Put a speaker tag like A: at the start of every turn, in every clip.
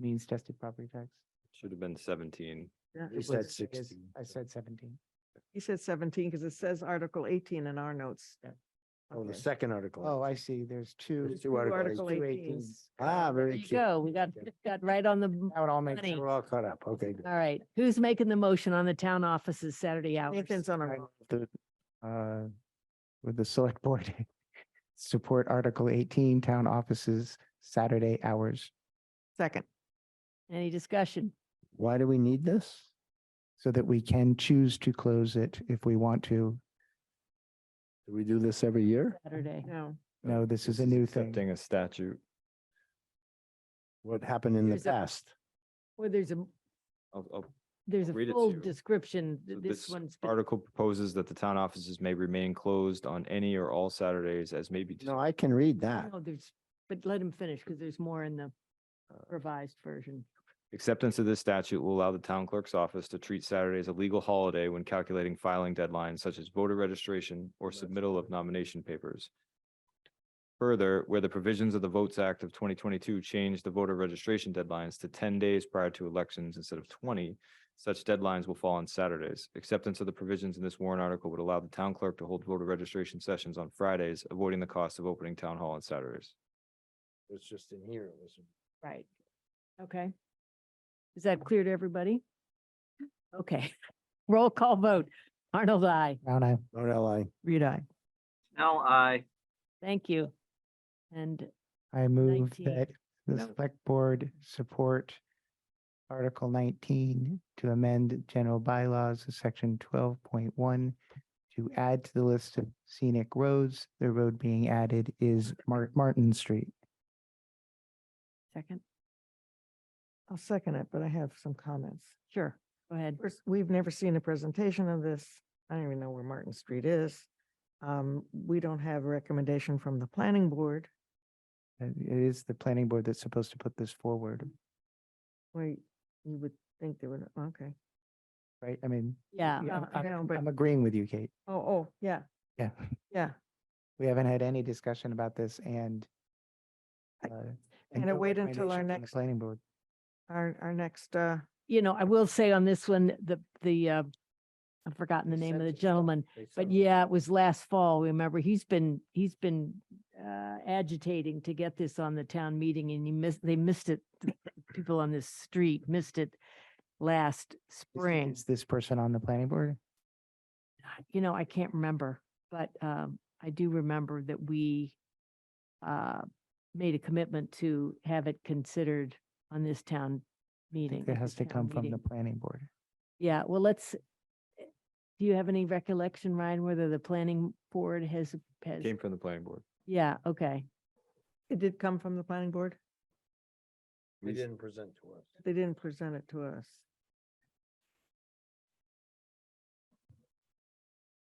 A: means tested property tax.
B: Should have been seventeen.
C: Yeah,
A: You
C: it
A: said
C: was-
A: it is-
B: 16,
A: I said seventeen.
C: You said seventeen, because it says Article eighteen in our notes.
A: Yeah.
D: Oh, the
C: Okay.
D: second article.
A: Oh, I see. There's two.
D: There's two articles.
C: Article
A: two
C: 18s.
D: Ah,
E: There
D: very
E: you
D: cute.
E: go. We got, got right on the, m-
A: That would all make.
E: Funny.
A: sense.
D: We're all caught up. Okay. good.
E: all right. Who's making the motion on the town offices Saturday hours?
C: Nathan's on a,
A: I-
C: roll.
A: the, uh, With the select board, support Article eighteen, town offices, Saturday hours.
C: second,
E: Any discussion?
D: Why do we need this?
A: So that we can choose to close it if we want to.
D: Do we do this every year?
E: Saturday.
C: no.
A: No, this is a new thing.
B: Accepting a statute.
D: What happened in the
E: Here's a-
D: past?
E: Well, there's a,
B: I'll- I'll-
E: there's a
B: I'll read it to
E: full
B: you.
E: description. th-
B: so
E: This
B: this
E: one's. been-
B: Article proposes that the town offices may remain closed on any or all Saturdays as may be. dis-
D: No, I can read that.
E: No, there's, but let him finish because there's more in the
B: Uh.
E: revised version.
B: Acceptance of this statute will allow the town clerk's office to treat Saturday as a legal holiday when calculating filing deadlines such as voter registration or
D: That's
B: submittal of nomination papers. Further, where the provisions of the Votes Act of twenty twenty-two change the voter registration deadlines to ten days prior to elections instead of twenty, such deadlines will fall on Saturdays. Acceptance of the provisions in this warrant article would allow the town clerk to hold voter registration sessions on Fridays, avoiding the cost of opening town hall on Saturdays.
D: It's just in here. It was
E: Right. Okay. Is that clear to everybody? Okay. Roll call vote. Arnold, I.
A: Brown eye.
D: Not LI.
C: Read I.
F: Now I,
E: Thank you. And
A: I move
E: 19.
A: that the
E: No.
A: select board support Article nineteen to amend general bylaws of section twelve point one to add to the list of scenic roads, the road being added is Mar- Martin Street.
E: second,
C: I'll second it, but I have some comments.
E: sure, go ahead.
C: First, we've never seen a presentation of this. I don't even know where Martin Street is. Um, we don't have a recommendation from the planning board.
A: Uh, It is the planning board that's supposed to put this forward,
C: Wait, you would think they would, okay.
A: right? I mean,
E: Yeah.
C: Yeah,
A: I'm-
C: I know,
A: I'm
C: but-
A: Uh, I'm agreeing with you, Kate.
C: Oh, oh, yeah,
A: Yeah,
C: yeah.
A: we haven't had any discussion about this and
C: I-
A: uh,
C: gonna
A: no
C: wait until
A: recommendation from
C: our
A: the
C: next-
A: Planning board.
C: Our, our next, uh,
E: you know, I will say on this one, the, the, uh, I've forgotten the
D: They
E: name of the
D: sent us stuff.
E: gentleman, but yeah, it was last fall. Remember, he's been, he's been, uh, agitating to get this on the town meeting and he missed, they missed it. the People on this street missed it last
A: Is-
E: spring.
A: Is this person on the planning board?
E: You know, I can't remember, but, um, I do remember that we, uh, made a commitment to have it considered on this town
A: I think
E: meeting.
A: It
E: at
A: has to
E: the town
A: come from the
E: meeting.
A: planning board.
E: Yeah, well, let's, do you have any recollection, Ryan, whether the planning board has, has,
B: Came from the planning board.
E: yeah, okay.
C: it did come from the planning board.
B: We s-
D: present to us.
C: They didn't present it to us.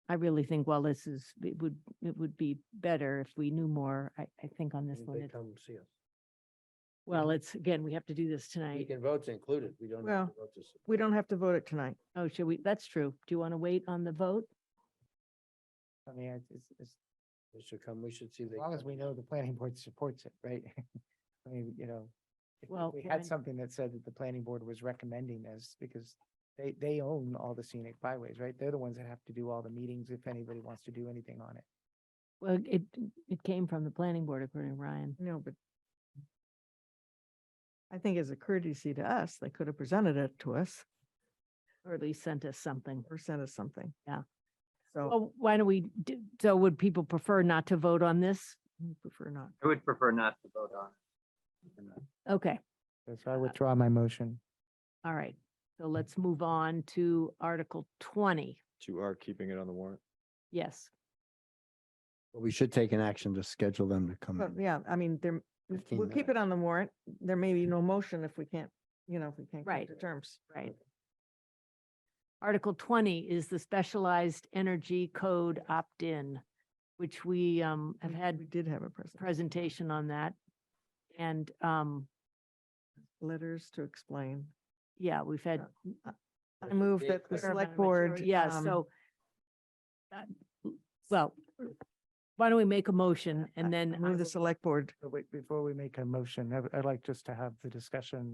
E: I really think while this is, it would, it would be better if we knew more, I, I think on this one. it's-
D: come see us.
E: Well, it's, again, we have to do this tonight.
D: can vote included. We don't
C: have to
D: vote this.
C: We don't have to vote it tonight.
E: Oh, should we, that's true. Do you want to wait on the vote?
A: I mean, it's, it's- it's-
D: They should come, we should see.
A: as long as we know the planning board supports it, right? I mean, you know, if-
E: Well,
A: if we
E: Ryan-
A: had something that said that the planning board was recommending this because they, they own all the scenic byways, right? They're the ones that have to do all the meetings if anybody wants to do anything on it.
E: Well, it, it came from the planning board according to Ryan.
C: No, but I think as a courtesy to us, they could have presented it to us
E: Or at least sent us something.
C: or sent us something.
E: Yeah.
C: So
E: Well, why don't we, do? so would people prefer not to vote on this?
C: we prefer not.
F: I would prefer not to vote on. it.
E: Okay.
A: So I withdraw my motion.
E: All right, so let's move on to Article twenty.
B: You are keeping it on the warrant.
E: Yes,
D: We should take an action to schedule them to come.
C: But
D: in.
C: yeah, I mean, there, we-
D: 15
C: we'll keep it on the warrant. There may be no motion if we can't, you know, if we can't
E: Right.
C: come to terms.
E: right. Article twenty is the specialized energy code opt-in, which we um have
C: We- We
E: had
C: did have a presentation.
E: presentation on that. And um,
C: Letters to explain.
E: yeah, we've had.
C: I move that the
E: fair amount
C: select
E: of
C: board.
E: material. Yeah,
C: um,
E: so. uh, Well, why don't we make a motion and
C: I-
E: then.
C: I
E: I
C: Move the
E: will-
C: select board
A: But wait, before we make a motion, I- I'd like just to have the discussion